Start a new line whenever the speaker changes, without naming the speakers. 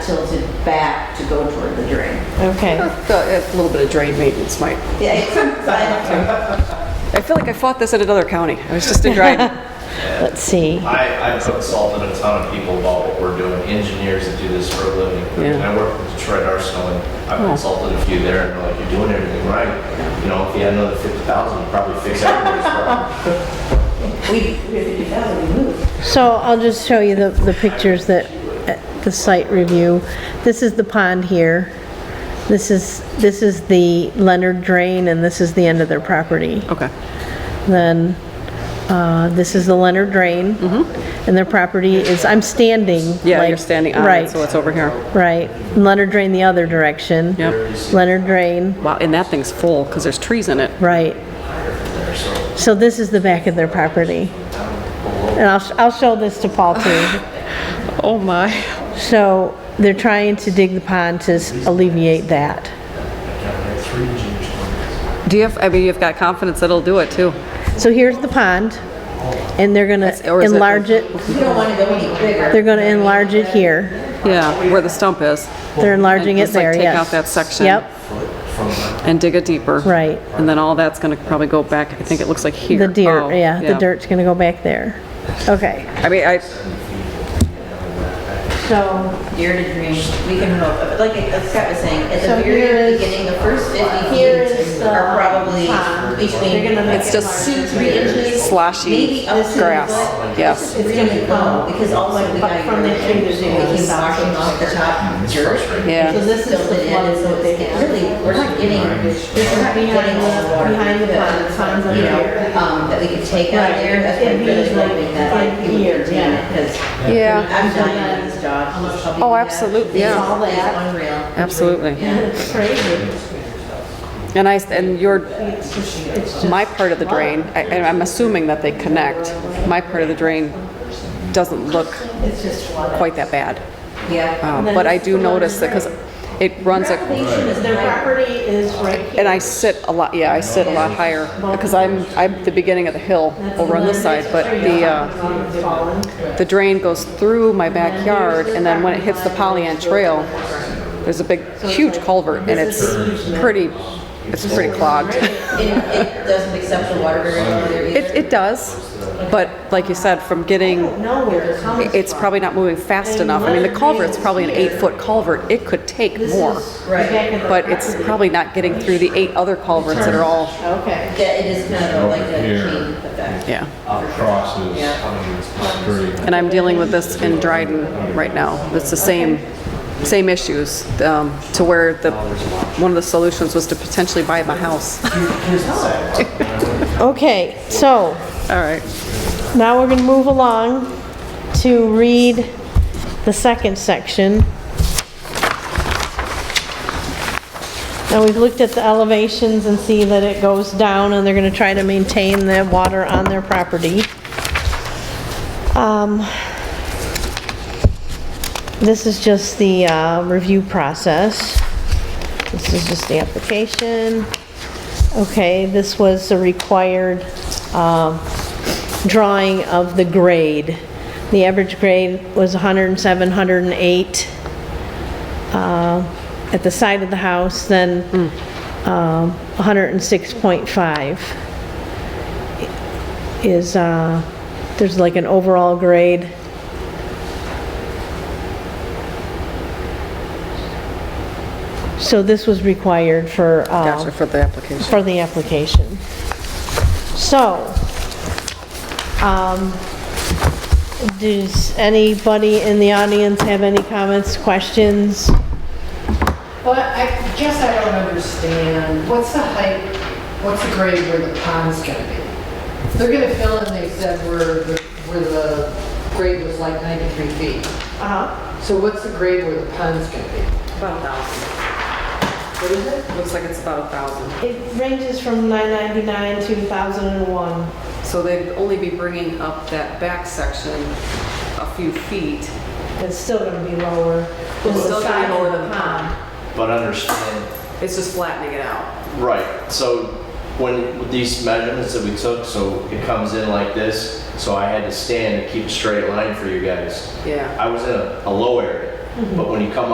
tilted back to go toward the drain.
Okay.
A little bit of drain maintenance might.
Yeah, it's I
I feel like I fought this at another county. I was just in Dryden.
Let's see.
I, I put salt in a ton of people about what we're doing, engineers that do this for a living. And I work with Detroit Arsenal, and I consulted a few there, and they're like, you're doing everything right. You know, if you had another fifty thousand, you'd probably fix everybody's problem.
don't, we, we haven't moved.
So I'll just show you the, the pictures that, uh, the site review. This is the pond here. This is, this is the Leonard drain and this is the end of their property.
Okay.
Then, uh, this is the Leonard drain. And their property is, I'm standing.
Mm-hmm. Yeah, you're
like-
standing on it,
right,
so it's over here.
Right. Leonard drain the other direction.
Yep.
Leonard drain,
Wow, and that thing's full because there's trees in it.
right. So this is the back of their property. And I'll, sh- I'll show this to Paul too.
Oh my.
So they're trying to dig the pond to s- alleviate that.
Do you have, I mean, you've got confidence that it'll do it too.
So here's the pond, and they're gonna
or is it-
enlarge it,
We don't want to go any bigger.
they're gonna enlarge it here.
Yeah, where the stump is.
They're enlarging it
Just, like,
there,
take
yes.
out that section.
Yep,
And dig it deeper.
Right.
And then all that's going to probably go back, I think it looks like here.
the
Oh,
dirt, yeah, the dirt's gonna go back there. Okay,
I mean, I,
so,
Deer to green, we can hope, but like Scott was saying, at
So
the very
here's-
beginning, the first
Here
fifty
is
feet
the
are probably
pond. They're
between.
gonna make
it's
it
just
larger.
Three inches.
Sloshy
maybe up to the
grass,
foot.
yes.
It's really low, because also we
But
got.
from the tree to the other
It came
side.
washing off the top dirt.
Yeah.
So this is the flood that they had. Really, we're not getting, this is not getting all the water.
Behind the pond, the pond's up
You know,
here.
um, that we could take out
Right.
there, that's why
It'd
we
be
really
like
hoping that like, it
in
would
here,
contain
yeah.
it, because
Yeah.
I'm dying of these dogs.
Oh, absolutely,
It's
yeah.
all that, unreal.
absolutely.
it's crazy.
And I, and your, my part of the drain, I- and I'm assuming that they connect, my part of the drain doesn't look quite that bad.
Yeah.
Um, But I do notice that, because it runs, a-
Elevation is
Their property is right here.
and I sit a lot, yeah, I sit a lot higher, because I'm, I'm the beginning of the hill over on this side, but the, uh, the drain goes through my backyard, and then when it hits the Pollyant Trail, there's a big, huge culvert, and it's pretty, it's pretty clogged.
It, it doesn't accept the water very well there
It,
either.
it does, but like you said, from getting,
Know where it comes
it's probably not moving fast enough. I mean, the culvert's probably an eight-foot culvert, it could take more,
Right.
but it's probably not getting through the eight other culverts that are all,
Okay.
Yeah, it is kind of like a
Here.
chain effect.
yeah.
crosses pretty.
And I'm dealing with this in Dryden right now. It's the same, same issues, um, to where the, one of the solutions was to potentially buy my house.
Okay, so,
All right.
Now we're gonna move along to read the second section. Now we've looked at the elevations and see that it goes down and they're gonna try to maintain the water on their property. Um, This is just the uh, review process. This is just the application. Okay, this was the required um, drawing of the grade. The average grade was 107, 108 uh, at the side of the house, then um, 106.5 is, uh, there's like an overall grade. So this was required for... uh,
Gotcha, for the application.
for the application. So, um, does anybody in the audience have any comments, questions?
Well, I guess I don't understand. What's the height, what's the grade where the pond's gonna be? They're gonna fill in, they said, where the, where the grade was like 93 feet.
Uh-huh.
So what's the grade where the pond's gonna be?
About a thousand.
What is it?
Looks like it's about a thousand.
It ranges from 999 to 1,001.
So they'd only be bringing up that back section a few feet.
It's still gonna be lower.
Well,
than the
still gonna be
side
lower
of
than the
But understand,
It's just flattening it out.
Right, so when, with these measurements that we took, so it comes in like this, so I had to stand and keep a straight line for you guys.
Yeah.
I was in a, a low area, but when you come